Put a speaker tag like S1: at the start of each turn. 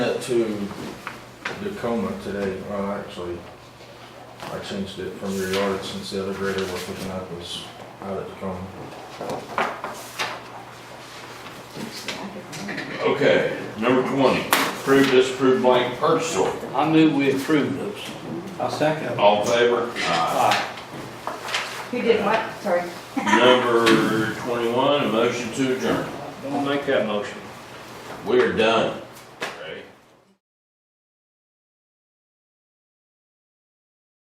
S1: Went to Tacoma today, well, actually, I changed it from your yard since the other grader we're picking up was out at Tacoma.
S2: Okay, number twenty, approve, disapprove blank purchase order.
S3: I knew we approved those. I second them.
S2: All in favor? Aye.
S3: Aye.
S4: Who did what? Sorry.
S2: Number twenty-one, a motion to adjourn.
S3: Don't make that motion.
S2: We are done.